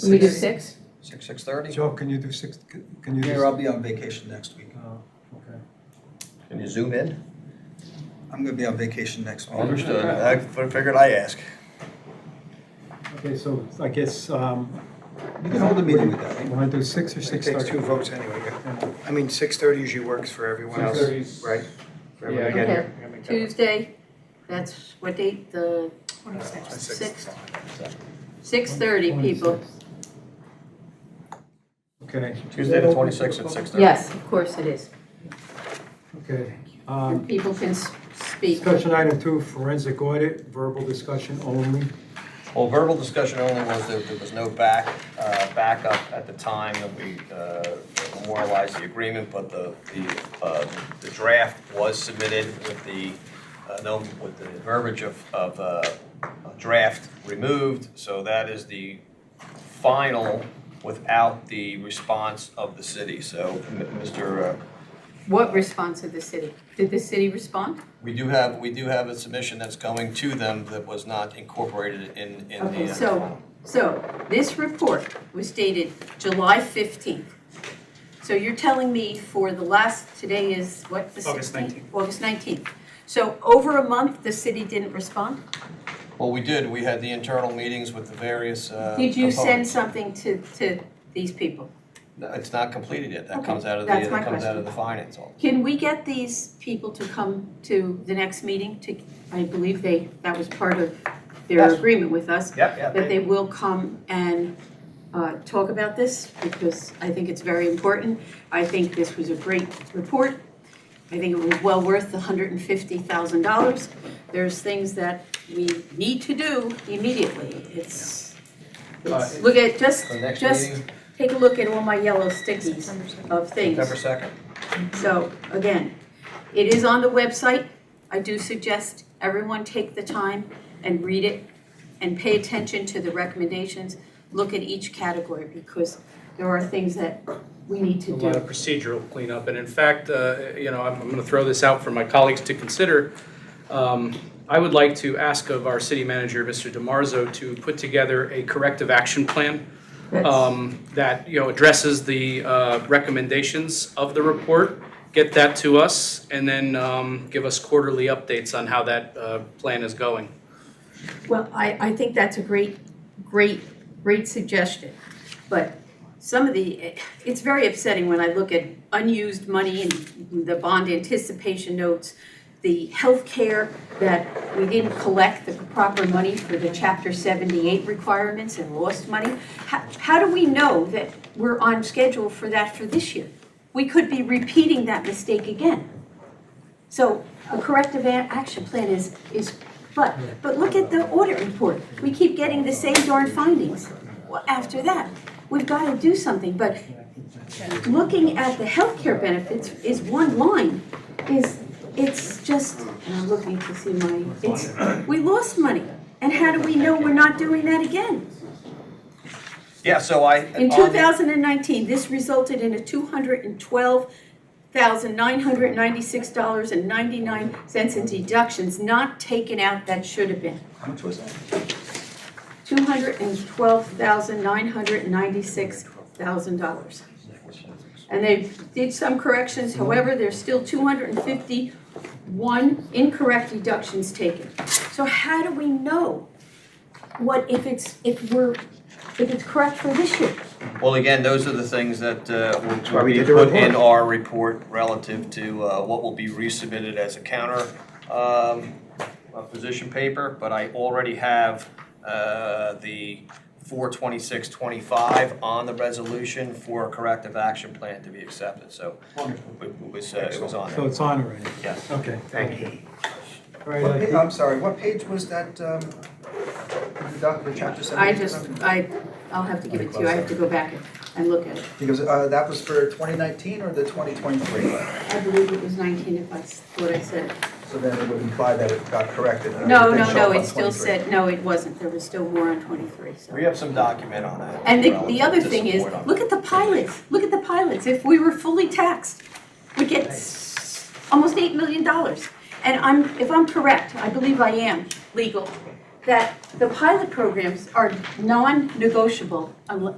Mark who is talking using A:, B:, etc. A: Can we do
B: Six.
A: six?
B: Six, six thirty?
C: Joe, can you do six, can you do?
B: Mayor, I'll be on vacation next week.
C: Oh, okay.
D: Can you zoom in?
B: I'm gonna be on vacation next week.
D: Understood. I figured I ask.
C: Okay, so I guess, um,
B: You can hold a meeting with that,
C: you
B: right?
C: wanna do six or
E: It
C: six
E: takes
C: thirty?
E: two votes anyway. yeah. I mean, six thirty usually works for everyone else,
C: 6:30
E: right? For everyone
A: Yeah, I
E: to get
A: Okay.
E: here. I make that work.
A: Tuesday, that's what date,
E: Uh,
A: the
F: Twenty-six.
E: six.
A: sixth? Six thirty, people.
C: Okay,
D: Tuesday the twenty-sixth at six thirty.
A: Yes, of course it is.
C: okay.
A: And
C: Um,
A: people can s- speak.
C: Discussion item two, forensic audit, verbal discussion only.
D: Well, verbal discussion only was that there was no back, uh, backup at the time that we uh, memorialized the agreement, but the, the, uh, the draft was submitted with the, uh, no, with the verbiage of, of uh, draft removed, so that is the final without the response of the city. So, m- Mr. uh,
A: What response of the city? Did the city respond?
D: We do have, we do have a submission that's going to them that was not incorporated in, in the. uh,
A: Okay, so, so this report was dated July fifteenth. So you're telling me for the last, today is what, the
E: August
A: sixteenth? August nineteenth. So over a month, the city didn't respond?
D: Well, we did, we had the internal meetings with the various uh,
A: Did you send
D: components.
A: something to, to these people?
D: No, It's not completed yet, that
A: Okay,
D: comes out of the,
A: that's my
D: that comes out
A: question.
D: of the finance. office.
A: Can we get these people to come to the next meeting to, I believe they, that was part of their
D: Yes.
A: agreement with us,
D: Yep, yep.
A: that they will come and uh, talk about this, because I think it's very important. I think this was a great report. I think it was well worth the hundred and fifty thousand dollars. There's things that we need to do immediately. It's,
G: uh,
A: it's, look at, just,
D: The next
A: just
D: meeting,
A: take a look at all my yellow stickies of things.
D: September second.
A: So again, it is on the website. I do suggest everyone take the time and read it and pay attention to the recommendations. Look at each category because there are things that we need
G: a
A: to
G: lot of
A: do.
G: procedural cleanup. And in fact, uh, you know, I'm going to throw this out for my colleagues to consider. Um, I would like to ask of our city manager, Mr. DiMarzo, to put together a corrective action plan um, that, you know, addresses the uh, recommendations of the report, get that to us, and then um, give us quarterly updates on how that uh, plan is going.
A: Well, I, I think that's a great, great, great suggestion. But some of the, it's very upsetting when I look at unused money and the bond anticipation notes, the healthcare that we didn't collect the proper money for the chapter seventy-eight requirements and lost money. How, how do we know that we're on schedule for that for this year? We could be repeating that mistake again. So a corrective a- action plan is, is, but, but look at the audit report. We keep getting the same darn findings. Well, after that, we've got to do something, but looking at the healthcare benefits is one line, is, it's just, and I'm looking to see my, it's, we lost money. And how do we know we're not doing that again?
D: Yeah, so I.
A: In
D: on-
A: 2019, this resulted in a $212,996.99 in deductions not taken out that should have been.
B: How much was that?
A: $212,996,000. And they did some corrections, however, there's still 251 incorrect deductions taken. So how do we know what, if it's, if we're, if it's correct for this year?
D: Well, again, those are the things that uh, will-
E: why
D: will
E: we
D: be
E: did the
D: put in
E: report.
D: our report relative to uh, what will be resubmitted as a counter um, uh, position paper, but I already have uh, the 42625 on the resolution for a corrective action plan to be accepted, so
B: Wonderful.
D: it was, uh, it was on
C: So
D: there,
C: it's on already,
D: yes.
C: okay.
E: Thank you.
C: All right,
B: What
C: I
B: pa-
C: think-
B: I'm sorry, what page was that, um, the doc- the chapter
A: I
B: seventy?
A: just, uh, I, I'll have to give it to you, I have to go back and- and look at it.
B: Because, uh, that was for twenty nineteen or the twenty twenty-three?
A: I believe it was 19 if that's what I said.
B: So then it would imply that it got corrected. and
A: No, no,
B: everything showed
A: no,
B: up
A: it
B: on
A: still
B: 23.
A: said, no, it wasn't, there was still more on 23, so.
D: We have some document on that.
A: And the, the
D: relative
A: other
D: to
A: thing is,
D: support on-
A: look at the pilots, look at the pilots, if we were fully taxed, we'd get s- almost $8 million. And I'm, if I'm correct, I believe I am legal, that the pilot programs are non-negotiable unless.